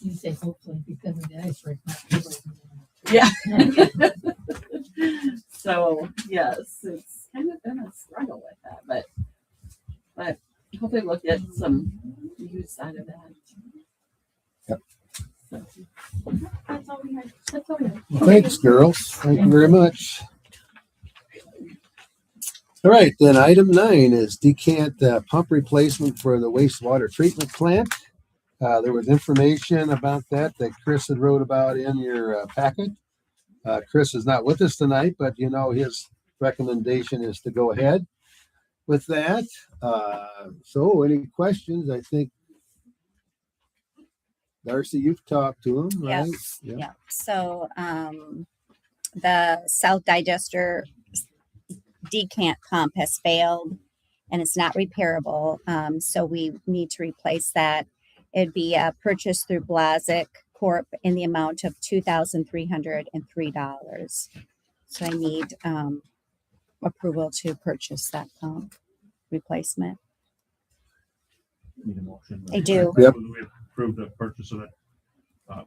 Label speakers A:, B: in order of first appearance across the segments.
A: You say hopefully because of the ice rink. not because of
B: so yes, it's kind of been a struggle with that, but but hopefully we'll get some use out of that.
C: Yep.
B: So,
D: That's all we had. That's all we had.
C: Well, Thanks, girls. Thank you very much. All right, then item nine is decant uh, pump replacement for the wastewater treatment plant. Uh, there was information about that that Chris had wrote about in your uh, packet. Uh, Chris is not with us tonight, but you know, his recommendation is to go ahead with that. Uh, so any questions? I think Darcy, you've talked to him,
E: Yeah.
C: right? Yeah.
E: Yeah, so, um, the south digester decant pump has failed and it's not repairable, um, so we need to replace that. It'd be, uh, purchased through Blazic Corp in the amount of two thousand three hundred and three dollars. So I need, um, approval to purchase that pump replacement.
F: Need a motion.
E: I do.
C: Yep.
F: We approve the purchase of that, uh,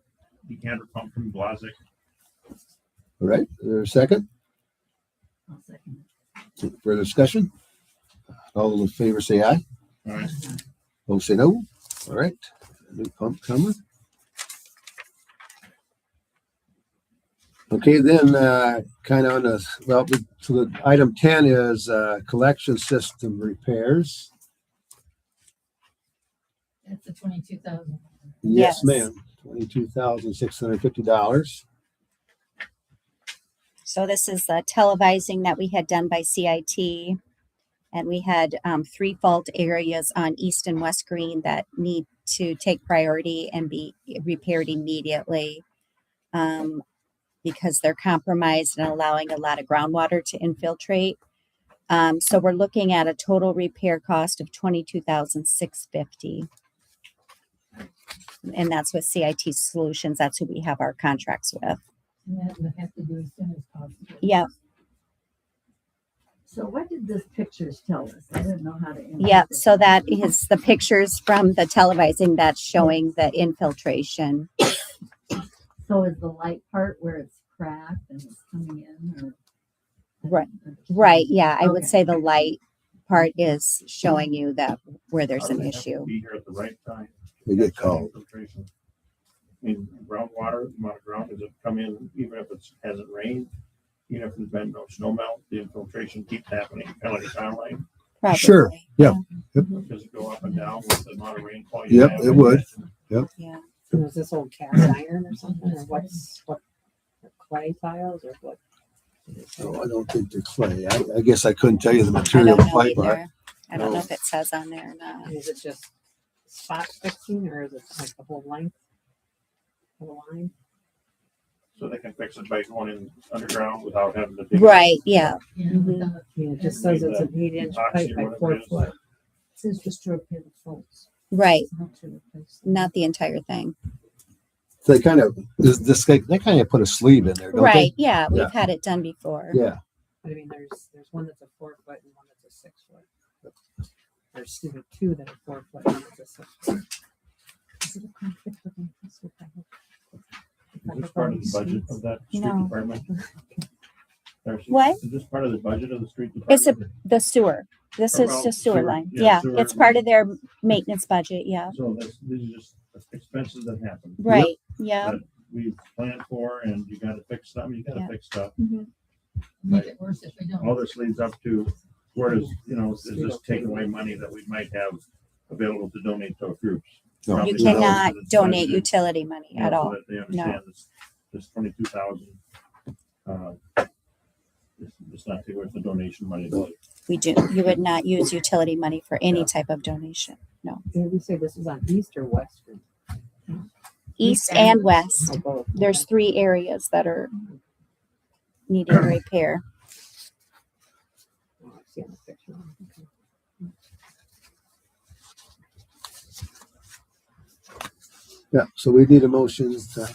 F: decanter pump from Blazic.
C: All right, is there a second?
A: I'll second
C: Further discussion? All those in favor say aye.
F: All right,
A: that.
C: Those say no. All right. New pump coming. Okay, then, uh, kind of on the, well, we- so the item ten is, uh, collection system repairs.
A: That's the twenty-two thousand.
C: Yes,
E: Yes.
C: ma'am. Twenty-two thousand, six hundred and fifty dollars.
E: So this is the televising that we had done by CIT. And we had um, three fault areas on East and West Green that need to take priority and be repaired immediately. um, because they're compromised and allowing a lot of groundwater to infiltrate. Um, so we're looking at a total repair cost of twenty-two thousand six fifty. And that's with CIT Solutions. That's who we have our contracts with.
A: And that would have to do as soon as possible.
E: Yeah,
G: So what did these pictures tell us? I didn't know how to.
E: Yeah,
G: interpret
E: so that is the pictures from the televising that's showing the infiltration.
G: So is the light part where it's cracked and it's coming in or?
E: Right, Right, yeah, I would
G: Okay.
E: say the light part is showing you that where there's an
F: They have to
E: issue.
F: Be here at the right time.
C: They get called.
F: Infiltration. In groundwater, the amount of ground does it come in, even if it's, hasn't rained, even if there's been no snow melt, the infiltration keeps happening, kind of like a town line.
C: Sure.
E: probably. Mm-hmm.
F: Does it go up and down with the amount of rainfall?
C: Yep, it would.
E: Yeah,
H: So is this old cast iron or something, or what's, what, clay tiles or what?
C: So I don't think they're clay. I, I guess I couldn't tell you the
E: I
C: material.
E: don't
C: of
E: know
C: pipe art.
E: either. I don't know if it says on there or not.
H: Is it just spot fixing or is it like the whole length? of The line?
F: So they can fix it by going in underground without having to. dig
E: Right, yeah,
A: Yeah,
H: Mhm.
E: Mm-hmm.
A: without-
H: I mean, it just says it's an eight inch pipe
F: Epoxy
H: by
F: or whatever
H: four
F: it is.
H: foot.
G: Says just to repair the faults,
E: right,
G: not to replace. them.
E: not the entire thing.
C: They kind of, this, this, guy- they kind of put a sleeve in there, don't they?
E: Right, yeah,
C: Yeah.
E: we've had it done before.
C: Yeah.
H: But I mean, there's, there's one that's a four foot and one that's a six foot. There's excuse me, two that are four foot, one that's a six foot.
G: Is it a conflict of interest with that?
F: Is this part of the budget of that street
E: No.
F: department? Darcy,
E: What?
F: Is this part of the budget of the street
E: It's a-
F: department?
E: The sewer, this
F: Or
E: is
F: well,
E: the sewer
F: sewer,
E: line.
F: yeah,
E: Yeah,
F: sewer
E: it's part
F: line.
E: of their maintenance budget, yeah,
F: So this, these are just expenses that happen.
E: right, yeah.
F: That we planned for and you gotta fix something, you gotta
E: Yeah.
F: fix stuff.
E: mhm.
A: Make it worse if we don't.
F: All this leads up to where is, you know, is this taking away money that we might have available to donate to our groups?
C: No.
F: Probably
E: You
F: not.
E: cannot
F: It's
E: donate
F: budgeted,
E: utility money
F: you know,
E: at
F: so
E: all.
F: that They understand this, this twenty-two thousand. uh, It's not worth the donation money.
C: No.
E: We do, you would not use utility money for any type of donation,
H: Did we say this is on east or west? Green?
E: east
H: and
E: and
H: Or
E: west.
H: both?
E: There's three areas that are needing repair.
H: Oh, I see on the picture. Okay.
C: Yeah, so we need a motion to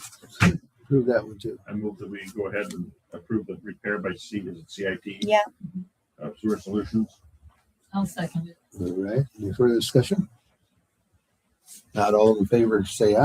C: approve that one too.
F: I move that we go ahead and approve the repair by C, is it CIT?
E: Yeah,
F: uh, Sewer Solutions.
A: I'll second it.
C: All right, any further discussion? Not all in favor, say aye.